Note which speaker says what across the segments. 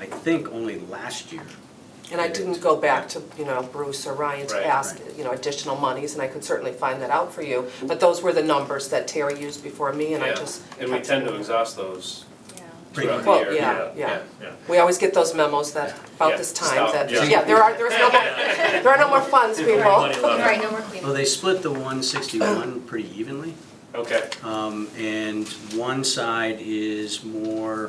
Speaker 1: think only last year.
Speaker 2: And I didn't go back to, you know, Bruce or Ryan
Speaker 1: Right,
Speaker 2: to ask,
Speaker 1: right.
Speaker 2: you know, additional monies, and I could certainly find that out for you. But those were the numbers that Terry used before me, and I
Speaker 3: Yeah,
Speaker 2: just.
Speaker 3: And we
Speaker 2: kept
Speaker 3: tend to
Speaker 2: them.
Speaker 3: exhaust those
Speaker 1: Pretty
Speaker 3: throughout
Speaker 2: Well,
Speaker 3: the year,
Speaker 2: yeah,
Speaker 3: yeah, yeah,
Speaker 2: yeah.
Speaker 3: yeah.
Speaker 2: We always get those memos that,
Speaker 3: Yeah,
Speaker 2: about this time,
Speaker 3: stop,
Speaker 2: that,
Speaker 3: yeah.
Speaker 2: yeah, there are, there's no more, there are no more funds,
Speaker 3: Everybody
Speaker 2: people.
Speaker 3: loves it.
Speaker 4: Right, no more cleaning.
Speaker 1: Well, they split the 161 pretty evenly,
Speaker 3: Okay,
Speaker 1: um, and one side is more,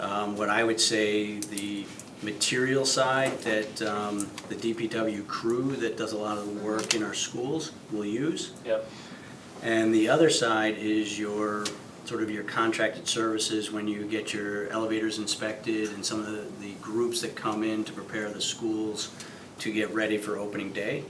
Speaker 1: um, what I would say, the material side that um, the DPW crew that does a lot of the work in our schools will use.
Speaker 3: yep,
Speaker 1: And the other side is your, sort of your contracted services when you get your elevators inspected and some of the- the groups that come in to prepare the schools to get ready for opening day.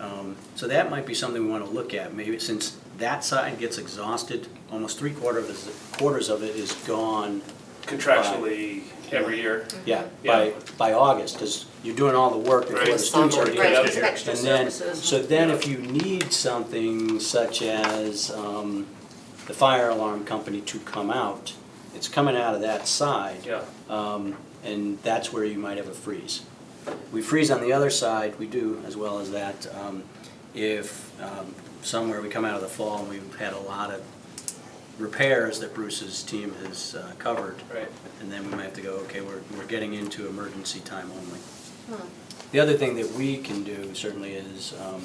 Speaker 1: Um, So that might be something we want to look at, maybe since that side gets exhausted, almost three quarter of it, quarters of it is gone.
Speaker 3: contractually, every year,
Speaker 1: Yeah, by,
Speaker 3: Yeah.
Speaker 1: by August, because you're doing all the work before
Speaker 3: Right.
Speaker 1: the students are
Speaker 2: Right,
Speaker 1: here.
Speaker 3: Right,
Speaker 1: And then, so then if you need something such as um, the fire alarm company to come out, it's coming out of that side.
Speaker 3: yeah,
Speaker 1: um, And that's where you might have a freeze. We freeze on the other side, we do, as well as that. um, If um, somewhere we come out of the fall and we've had a lot of repairs that Bruce's team has uh, covered,
Speaker 3: right.
Speaker 1: and then we might have to go, okay, we're, we're getting into emergency time only.
Speaker 4: Hmm.
Speaker 1: The other thing that we can do certainly is, um,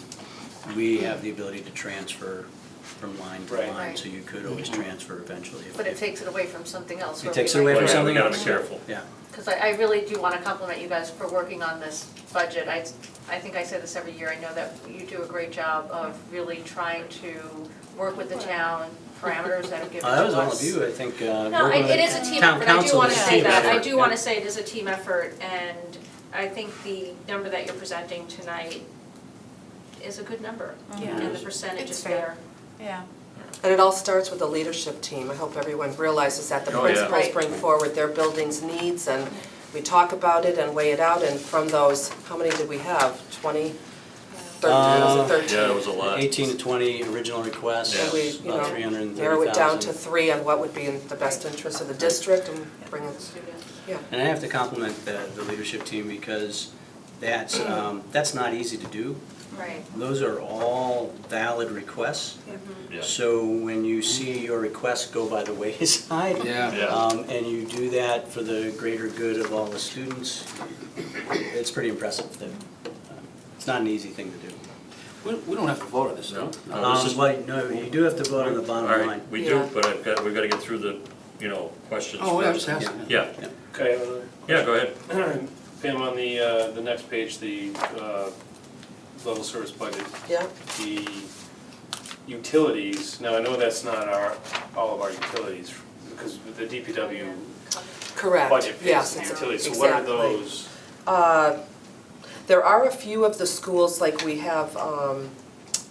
Speaker 1: we have the ability to transfer from line to
Speaker 3: Right.
Speaker 1: line,
Speaker 4: Right. Mm-hmm.
Speaker 1: so you could always transfer eventually. if-
Speaker 4: But it
Speaker 1: if-
Speaker 4: takes it away from something else.
Speaker 1: It takes it away from
Speaker 5: Yeah,
Speaker 1: something
Speaker 5: We gotta
Speaker 1: else.
Speaker 5: be careful.
Speaker 1: Yeah,
Speaker 4: Because I, I really do want to compliment you guys for working on this budget. I, I think I say this every year. I know that you do a great job of really trying to work with the town, parameters that are given to us.
Speaker 1: Uh, that was all of you, I think, uh.
Speaker 4: No,
Speaker 1: we're
Speaker 4: it
Speaker 1: gonna-
Speaker 4: it is a team
Speaker 1: town
Speaker 4: effort, I do
Speaker 1: council
Speaker 4: wanna
Speaker 1: is a
Speaker 4: say
Speaker 1: team
Speaker 4: that, I
Speaker 1: effort,
Speaker 4: do
Speaker 1: yeah.
Speaker 4: wanna say it is a team effort, and I think the number that you're presenting tonight is a good number,
Speaker 6: Yeah.
Speaker 4: and the percentage
Speaker 6: It's
Speaker 4: is
Speaker 6: fair.
Speaker 4: there.
Speaker 6: Yeah.
Speaker 2: And it all starts with the leadership team. I hope everyone realizes that the
Speaker 5: Oh, yeah.
Speaker 2: principals
Speaker 4: Right.
Speaker 2: bring forward their building's needs, and we talk about it and weigh it out, and from those, how many did we have? Twenty? Thirteen,
Speaker 1: Uh,
Speaker 2: was it thirteen?
Speaker 5: Yeah, it was a lot.
Speaker 1: Eighteen to twenty original requests,
Speaker 5: Yeah.
Speaker 2: And we, you
Speaker 1: about three hundred
Speaker 2: know,
Speaker 1: and thirty thousand.
Speaker 2: narrow it down to three on what would be in the best interest of the district and bring it, yeah.
Speaker 1: And I have to compliment the, the leadership team because that's, um, that's not easy to do.
Speaker 4: Right.
Speaker 1: Those are all valid requests.
Speaker 5: Yeah.
Speaker 1: So when you see your requests go by the wayside.
Speaker 5: Yeah.
Speaker 1: Um, and you do that for the greater good of all the students, it's pretty impressive that, uh, it's not an easy thing to do.
Speaker 7: We, we don't have to vote on this, no?
Speaker 5: No, Oh, this
Speaker 1: Um,
Speaker 5: is-
Speaker 1: but no, you do have to vote on the bottom
Speaker 5: All
Speaker 1: line.
Speaker 5: right, we
Speaker 2: Yeah.
Speaker 5: do, but I've got, we've got to get through the, you know, questions
Speaker 7: Oh, I was
Speaker 5: first.
Speaker 7: asking.
Speaker 5: Yeah,
Speaker 3: Can I have another?
Speaker 5: yeah, go ahead.
Speaker 3: uh, Pam, on the, uh, the next page, the, uh, level service budget,
Speaker 2: Yeah,
Speaker 3: the utilities, now I know that's not our, all of our utilities, because the DPW
Speaker 2: correct,
Speaker 3: budget pays
Speaker 2: yes,
Speaker 3: the
Speaker 2: it's,
Speaker 3: utilities,
Speaker 2: exactly.
Speaker 3: so what are those?
Speaker 2: Uh, There are a few of the schools, like we have um,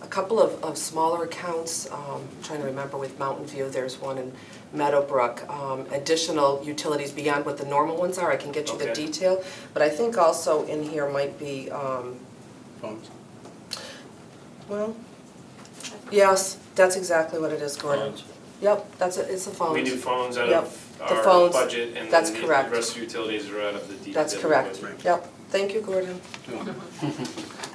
Speaker 2: a couple of, of smaller accounts, um, I'm trying to remember with Mountain View, there's one in Meadowbrook, um, additional utilities beyond what the normal ones are, I can get you the
Speaker 3: Okay.
Speaker 2: detail. But I think also in here might be, um,
Speaker 1: Phones.
Speaker 2: well, yes, that's exactly what it is, Gordon.
Speaker 5: Phones.
Speaker 2: Yep, that's, it, it's the phones.
Speaker 3: We do phones out
Speaker 2: Yep.
Speaker 3: of
Speaker 2: The
Speaker 3: our
Speaker 2: phones,
Speaker 3: budget, and
Speaker 2: that's
Speaker 3: then the
Speaker 2: correct.
Speaker 3: rest of the utilities are out of the DPW budget.
Speaker 2: That's correct, yep, thank you, Gordon.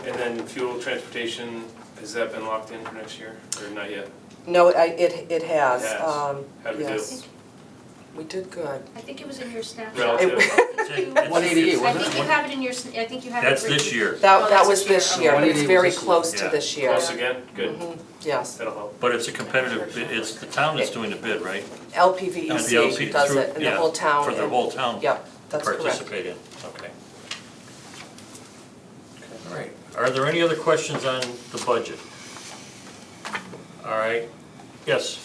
Speaker 3: And then fuel, transportation, has that been locked in for next year, or not yet?
Speaker 2: No, I, it, it has,
Speaker 3: Yes.
Speaker 2: um,
Speaker 3: How'd we do?
Speaker 2: yes, we did good.
Speaker 4: I think it was in your snapshot.
Speaker 3: Relative.
Speaker 4: I think you-
Speaker 7: One eighty-eight,
Speaker 4: I
Speaker 7: wasn't
Speaker 4: think
Speaker 7: it?
Speaker 4: you have it in your, sn- I think you have it.
Speaker 5: That's this
Speaker 4: written.
Speaker 5: year,
Speaker 4: Oh,
Speaker 2: That, that
Speaker 4: that's
Speaker 2: was
Speaker 4: this
Speaker 2: this
Speaker 4: year.
Speaker 2: year, but it's
Speaker 7: One
Speaker 2: very
Speaker 7: eighty was this
Speaker 2: close to
Speaker 5: year.
Speaker 2: this year.
Speaker 3: Close again, good,
Speaker 2: Mm-hmm. Yes,
Speaker 3: that'll help.
Speaker 5: but it's a competitive, bid. it's the town that's doing the bid, right? And the LP
Speaker 2: LPVEC E does
Speaker 5: E through-
Speaker 2: it, and the
Speaker 5: yeah,
Speaker 2: whole town.
Speaker 5: For the
Speaker 2: and-
Speaker 5: whole town.
Speaker 2: Yep, that's
Speaker 5: to
Speaker 2: correct.
Speaker 5: Participate in, okay.
Speaker 3: Okay.
Speaker 5: All right, are there any other questions on the budget? All right, yes,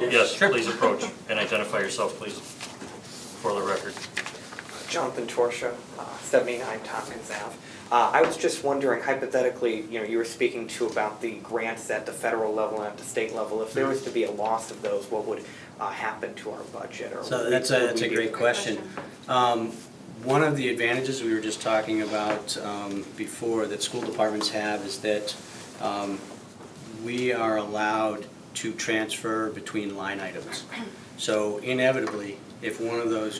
Speaker 5: yes, please approach and identify yourself, please, for the record.
Speaker 8: Jonathan Torsha, uh, 79 Tompkins Ave. Uh, I was just wondering hypothetically, you know, you were speaking to about the grants at the federal level and at the state level. If there was to be a loss of those, what would uh, happen to our budget? or would
Speaker 1: So
Speaker 8: we-
Speaker 1: that's a,
Speaker 8: would
Speaker 1: that's
Speaker 8: we
Speaker 1: a
Speaker 8: be-
Speaker 1: great question. Um, One of the advantages we were just talking about um, before that school departments have is that um, we are allowed to transfer between line items. So inevitably, if one of those